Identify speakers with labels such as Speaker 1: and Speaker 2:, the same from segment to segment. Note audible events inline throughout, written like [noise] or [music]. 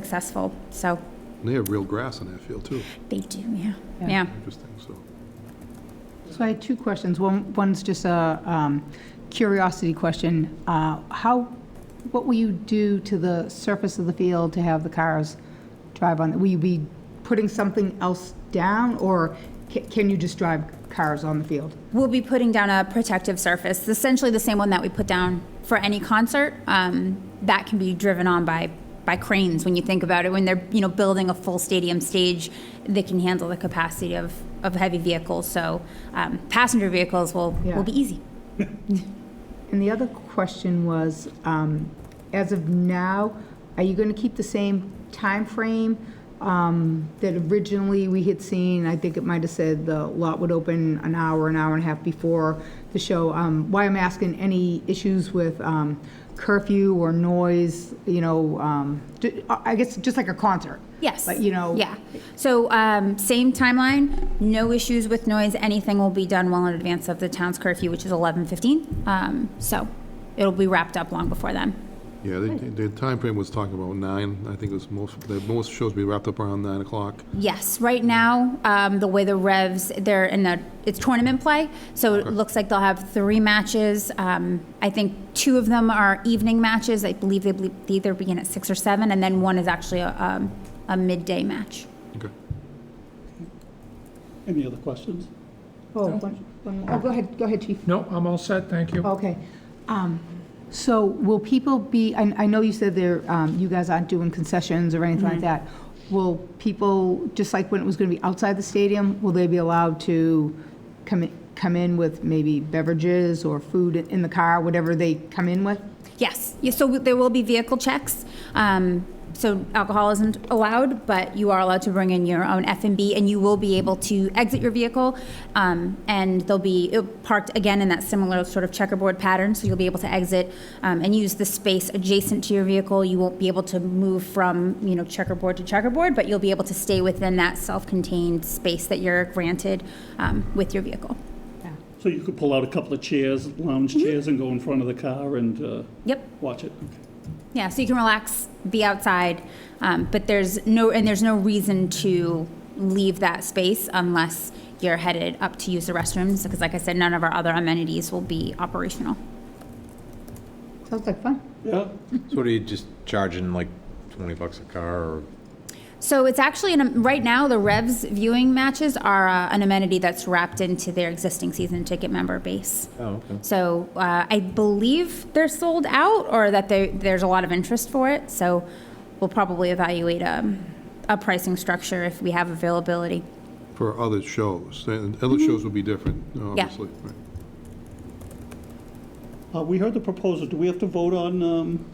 Speaker 1: successful. So
Speaker 2: They have real grass in that field, too.
Speaker 1: they do, yeah.
Speaker 3: Yeah.
Speaker 1: Yeah.
Speaker 2: Interesting, so.
Speaker 3: So I had two questions. One, one's just a um, curiosity question. Uh, How, what will you do to the surface of the field to have the cars drive on? Will you be putting something else down, or ca- can you just drive cars on the field?
Speaker 1: We'll be putting down a protective surface, essentially the same one that we put down for any concert. Um, that can be driven on by by cranes when you think about it. When they're you know building a full stadium stage, they can handle the capacity of, of heavy vehicles. So um, passenger vehicles will
Speaker 3: Yeah.
Speaker 1: will be easy.
Speaker 3: And the other question was, um, as of now, are you going to keep the same timeframe um, that originally we had seen? I think it might have said the lot would open an hour, an hour and a half before the show. Um, Why I'm asking, any issues with um, curfew or noise, you know, um, ju- I I guess just like a concert?
Speaker 1: Yes.
Speaker 3: But, you know.
Speaker 1: Yeah. So um, same timeline, no issues with noise. Anything will be done well in advance of the town's curfew, which is 11:15. Um, so it'll be wrapped up long before then.
Speaker 2: Yeah, the, the time frame was talking about nine. I think it was most, the most shows be wrapped up around nine o'clock.
Speaker 1: Yes. Right now, um, the way the revs they're in the it's tournament play, so it looks like they'll have three matches. Um, I think two of them are evening matches. I believe they, ble- they either begin at six or seven, and then one is actually a, um, a midday match.
Speaker 2: Okay.
Speaker 4: Any other questions?
Speaker 3: Oh, one- one more. Oh, go ahead, go ahead, Chief.
Speaker 5: No, I'm all set, thank you.
Speaker 3: Okay. Um, So will people be, I I know you said there, um, you guys aren't doing concessions or anything like that. Will people, just like when it was going to be outside the stadium, will they be allowed to come in- come in with maybe beverages or food in the car, whatever they come in with?
Speaker 1: Yes, Yeah, so there will be vehicle checks. Um, So alcohol isn't allowed, but you are allowed to bring in your own F and B, and you will be able to exit your vehicle. um, And they'll be it'll parked again in that similar sort of checkerboard pattern, so you'll be able to exit um, and use the space adjacent to your vehicle. You won't be able to move from, you know, checkerboard to checkerboard, but you'll be able to stay within that self-contained space that you're granted um, with your vehicle.
Speaker 4: So you could pull out a couple of chairs, lounge chairs, and go in front of the car and uh,
Speaker 1: Yep.
Speaker 4: watch it?
Speaker 1: Yeah, so you can relax, be outside, um, but there's no and there's no reason to leave that space unless you're headed up to use the restrooms because, like I said, none of our other amenities will be operational.
Speaker 3: Sounds like fun.
Speaker 4: Yeah,
Speaker 6: So what are you just charging like twenty bucks a car or
Speaker 1: So it's actually an, right now the Revs viewing matches are uh, an amenity that's wrapped into their existing season ticket member base.
Speaker 6: oh okay.
Speaker 1: So uh, I believe they're sold out or that they, there's a lot of interest for it. So we'll probably evaluate um, a pricing structure if we have availability.
Speaker 2: For other shows, and other
Speaker 4: Mm-hmm.
Speaker 2: shows will be different, obviously. right.
Speaker 4: Uh, we heard the proposal, do we have to vote on, um,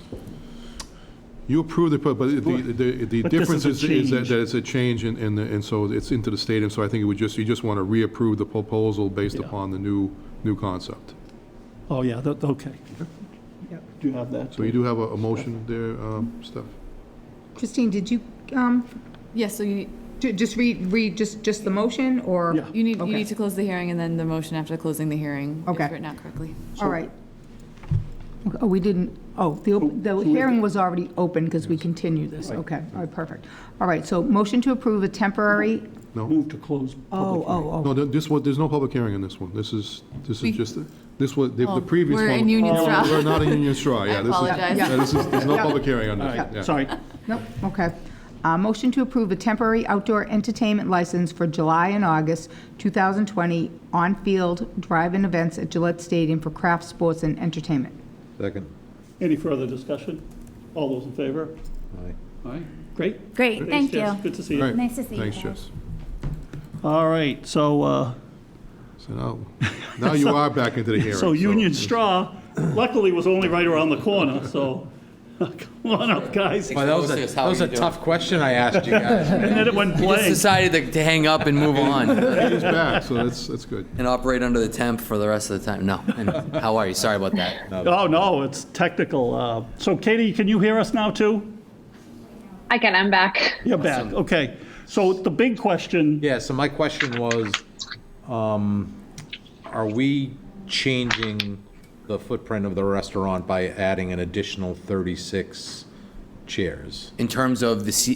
Speaker 2: You approve the, pro- but the, the- the
Speaker 4: But this
Speaker 2: difference
Speaker 4: is a
Speaker 2: is, is that
Speaker 4: change.
Speaker 2: that it's a change in, in the- and so it's into the stadium, so I think it would just, you just want to reapprove the proposal based
Speaker 4: Yeah.
Speaker 2: upon the new, new concept.
Speaker 4: oh, yeah, that- okay.
Speaker 3: Yep.
Speaker 4: Do you have that?
Speaker 2: So you do have a, a motion there, um, Steph?
Speaker 3: Christine, did you, um,
Speaker 7: Yes, so you need,
Speaker 3: ju- just read, read just, just the motion, or?
Speaker 4: Yeah.
Speaker 7: you need, you
Speaker 3: Okay.
Speaker 7: need to close the hearing and then the motion after closing the hearing.
Speaker 3: Okay.
Speaker 7: If written out correctly.
Speaker 3: All right. Okay, Oh, we didn't, oh, the, op- the hearing was already open because we continued this. Okay, all right, perfect. All right, so motion to approve a temporary,
Speaker 4: Move to close
Speaker 3: oh,
Speaker 4: public hearing.
Speaker 3: oh,
Speaker 2: No, th- this was, there's no public hearing on this one. This is, this is just, this was, the the
Speaker 7: Oh,
Speaker 2: previous one.
Speaker 7: we're in Union
Speaker 2: Oh,
Speaker 7: Straw.
Speaker 2: We're not in Union
Speaker 7: [laughs]
Speaker 2: Straw, yeah. this is-
Speaker 7: apologize.
Speaker 2: yeah, This is, there's no
Speaker 3: Yeah.
Speaker 2: public hearing on
Speaker 4: All
Speaker 2: this. yeah.
Speaker 4: right, sorry.
Speaker 3: oh, nope, okay. Uh, Motion to approve a temporary outdoor entertainment license for July and August 2020 on-field drive-in events at Gillette Stadium for craft sports and entertainment.
Speaker 6: Second.
Speaker 4: Any further discussion? All those in favor?
Speaker 6: Aye.
Speaker 4: All right, great.
Speaker 1: Great, thank
Speaker 4: Thanks, Jess.
Speaker 1: you.
Speaker 4: Good to see
Speaker 2: All
Speaker 4: you.
Speaker 2: right.
Speaker 1: Nice to see you
Speaker 2: Thanks,
Speaker 1: guys.
Speaker 2: Jess.
Speaker 4: All right, so, uh,
Speaker 2: So
Speaker 4: [laughs]
Speaker 2: now, now you are back into the hearing.
Speaker 4: so Union Straw luckily was only right around the corner, so [laughs] come on up, guys.
Speaker 6: Oh,
Speaker 4: And
Speaker 8: that was a- Explosives, how that was you a doing? tough
Speaker 6: question I asked
Speaker 4: [laughs]
Speaker 6: you guys.
Speaker 4: then it went
Speaker 8: just
Speaker 4: blank.
Speaker 8: decided to, to hang up and move on [laughs]
Speaker 2: He's back, so that's, that's good.
Speaker 8: and operate under the temp for the rest of the time. No. And how are you? Sorry about that.
Speaker 4: Oh, no, it's technical. uh, So Katie, can you hear us now, too?
Speaker 9: I can, I'm back.
Speaker 4: You're back, okay. So the big question,
Speaker 6: Yeah, so my question was, um, are we changing the footprint of the restaurant by adding an additional thirty-six chairs?
Speaker 8: In terms of the, C-